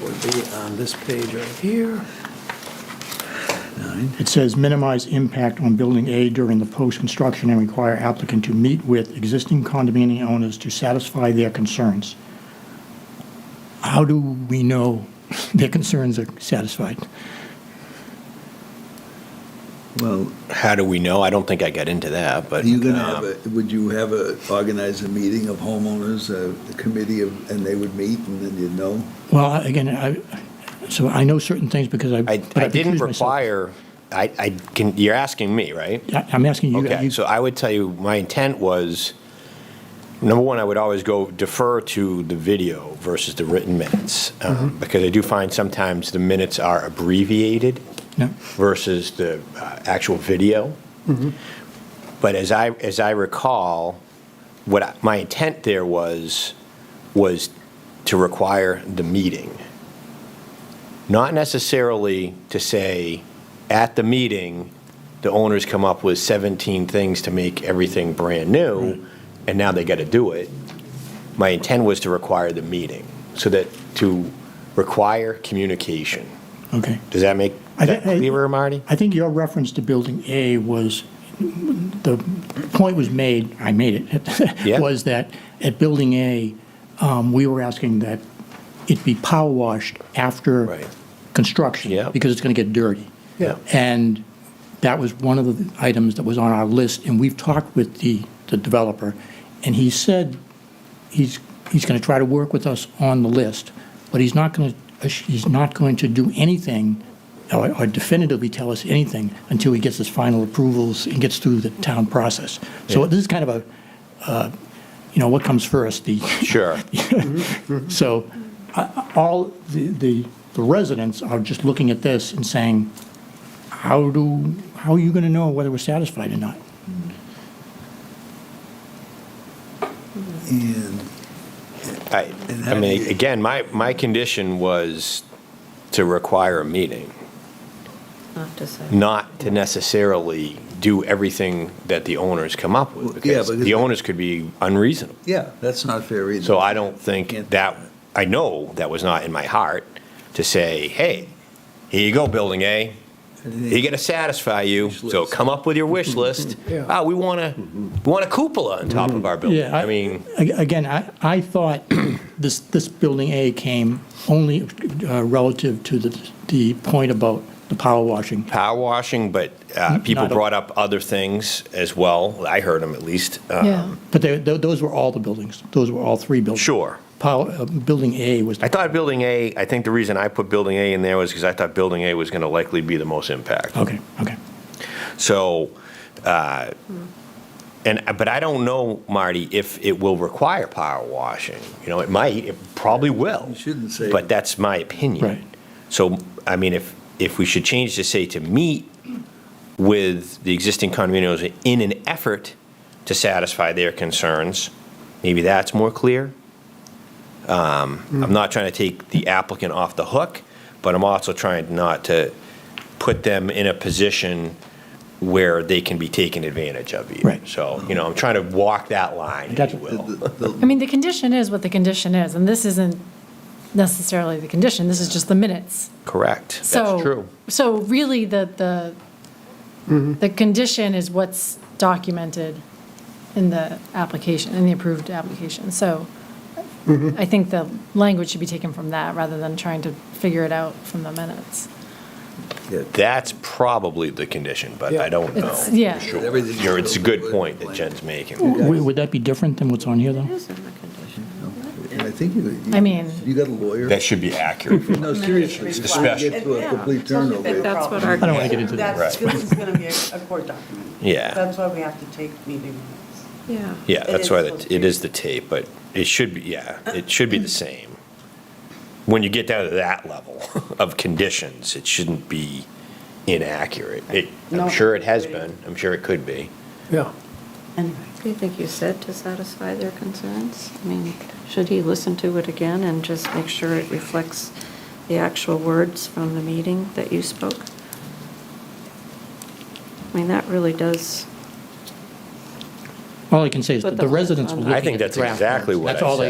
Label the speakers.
Speaker 1: would be on this page right here. Nine.
Speaker 2: It says minimize impact on building A during the post-construction and require applicant to meet with existing condominium owners to satisfy their concerns. How do we know their concerns are satisfied?
Speaker 1: Well,
Speaker 3: How do we know? I don't think I got into that,
Speaker 1: are
Speaker 3: but.
Speaker 1: you gonna
Speaker 3: um,
Speaker 1: have a, would you have a, organize a meeting of homeowners, uh, the committee of, and they would meet and then you'd know?
Speaker 2: Well, again, I, so I know certain things because I.
Speaker 3: I,
Speaker 2: but
Speaker 3: I
Speaker 2: I've
Speaker 3: didn't
Speaker 2: recused myself.
Speaker 3: require, I, I can, you're asking me, right?
Speaker 2: I- I'm asking you.
Speaker 3: Okay,
Speaker 2: you-
Speaker 3: so I would tell you, my intent was, number one, I would always go defer to the video versus the written minutes. um,
Speaker 2: Mm-hmm.
Speaker 3: Because I do find sometimes the minutes are abbreviated
Speaker 2: No.
Speaker 3: versus the uh, actual video.
Speaker 2: Mm-hmm.
Speaker 3: But as I, as I recall, what I- my intent there was, was to require the meeting. Not necessarily to say, at the meeting, the owners come up with 17 things to make everything brand new, and now they got to do it. My intent was to require the meeting, so that, to require communication.
Speaker 2: Okay.
Speaker 3: Does that make
Speaker 2: I
Speaker 3: that
Speaker 2: thi- I-
Speaker 3: clearer, Marty?
Speaker 2: I think your reference to building A was, the point was made, I made
Speaker 3: Yeah.
Speaker 2: it, was that at building A, um, we were asking that it be power washed after
Speaker 3: Right.
Speaker 2: construction.
Speaker 3: Yeah.
Speaker 2: Because it's going to get dirty.
Speaker 3: Yeah.
Speaker 2: And that was one of the items that was on our list, and we've talked with the, the developer, and he said he's, he's going to try to work with us on the list, but he's not going to, he's not going to do anything or or definitively tell us anything until he gets his final approvals and gets through the town process. So this is kind of a, uh, you know, what comes first, the,
Speaker 3: Sure.
Speaker 2: so I- I- all the- the the residents are just looking at this and saying, how do, how are you going to know whether we're satisfied or not?
Speaker 1: And
Speaker 3: I,
Speaker 1: And
Speaker 3: I
Speaker 1: that-
Speaker 3: mean, again, my, my condition was to require a meeting,
Speaker 4: Not to say.
Speaker 3: not to necessarily do everything that the owners come up with,
Speaker 1: Well, yeah,
Speaker 3: because
Speaker 1: because-
Speaker 3: the owners could be unreasonable.
Speaker 1: Yeah, that's not fair either.
Speaker 3: So I don't
Speaker 1: Yeah.
Speaker 3: think that, I know that was not in my heart to say, hey, here you go, Building A, you got to satisfy you,
Speaker 1: Wish
Speaker 3: so
Speaker 1: list.
Speaker 3: come up with your wish list. Ah, we want a, we want a cupola on
Speaker 1: Mm-hmm.
Speaker 3: top of our building.
Speaker 2: Yeah, I-
Speaker 3: I mean,
Speaker 2: A- Again, I, I thought this, this Building A came only uh, relative to the, the point about the power washing.
Speaker 3: power washing, but uh, people
Speaker 2: Not a-
Speaker 3: brought up other things as well. I heard them at least. Um,
Speaker 4: Yeah.
Speaker 2: But they- tho- those were all the buildings. Those were all three buildings.
Speaker 3: Sure.
Speaker 2: Power, uh, Building A was,
Speaker 3: I thought Building A, I think the reason I put Building A in there was because I thought Building A was going to likely be the most impact.
Speaker 2: okay, okay.
Speaker 3: So, uh, and, but I don't know, Marty, if it will require power washing. You know, it might, it probably will.
Speaker 1: You shouldn't say-
Speaker 3: But that's my opinion.
Speaker 2: Right.
Speaker 3: So, I mean, if, if we should change to say to meet with the existing condominiums in an effort to satisfy their concerns, maybe that's more clear. Um, I'm not trying to take the applicant off the hook, but I'm also trying not to put them in a position where they can be taken advantage of either.
Speaker 2: Right.
Speaker 3: So, you know, I'm trying to walk that line, if
Speaker 2: Gotcha.
Speaker 3: you will.
Speaker 4: I mean, the condition is what the condition is, and this isn't necessarily the condition, this is just the minutes.
Speaker 3: Correct.
Speaker 4: So-
Speaker 3: That's true. Mm-hmm.
Speaker 4: So really, the, the, the condition is what's documented in the application, in the approved application. So
Speaker 3: Mm-hmm.
Speaker 4: I think the language should be taken from that, rather than trying to figure it out from the minutes.
Speaker 1: Yeah,
Speaker 3: That's probably the condition, but I don't know.
Speaker 4: It's- yeah.
Speaker 3: for sure.
Speaker 1: Everything's
Speaker 3: You're- It's a good
Speaker 1: built-
Speaker 3: point that Jen's making.
Speaker 2: W- Would that be different than what's on here, though?
Speaker 1: and I think you. you-
Speaker 4: I mean-
Speaker 1: You got a lawyer?
Speaker 3: That should be accurate.
Speaker 1: No, seriously.
Speaker 5: It's
Speaker 1: you
Speaker 3: special.
Speaker 1: Get to a complete
Speaker 5: That's
Speaker 1: turnover.
Speaker 5: what
Speaker 2: I don't wanna get into that.
Speaker 5: That's, this is going to be a a court document.
Speaker 3: Yeah.
Speaker 5: That's why we have to take meeting minutes.
Speaker 4: Yeah.
Speaker 3: Yeah,
Speaker 5: It
Speaker 3: that's
Speaker 5: is
Speaker 3: why
Speaker 5: supposed
Speaker 3: that-
Speaker 5: to
Speaker 3: it
Speaker 5: be.
Speaker 3: is the tape, but it should be, yeah,
Speaker 5: Uh-huh.
Speaker 3: it should be the same. When you get down to that level of conditions, it shouldn't be inaccurate. It, I'm
Speaker 5: No.
Speaker 3: sure it has been, I'm sure it could be.
Speaker 6: Yeah,
Speaker 5: Anyway,
Speaker 7: Do you think you said to satisfy their concerns? I mean, should he listen to it again and just make sure it reflects the actual words from the meeting that you spoke? I mean, that really does,
Speaker 2: All I can say is that
Speaker 7: But
Speaker 2: the
Speaker 7: the-
Speaker 2: residents were
Speaker 7: I
Speaker 2: looking at
Speaker 3: think
Speaker 2: the
Speaker 3: that's
Speaker 2: draft
Speaker 3: exactly
Speaker 2: minutes.
Speaker 3: what
Speaker 2: That's
Speaker 3: I
Speaker 2: all they-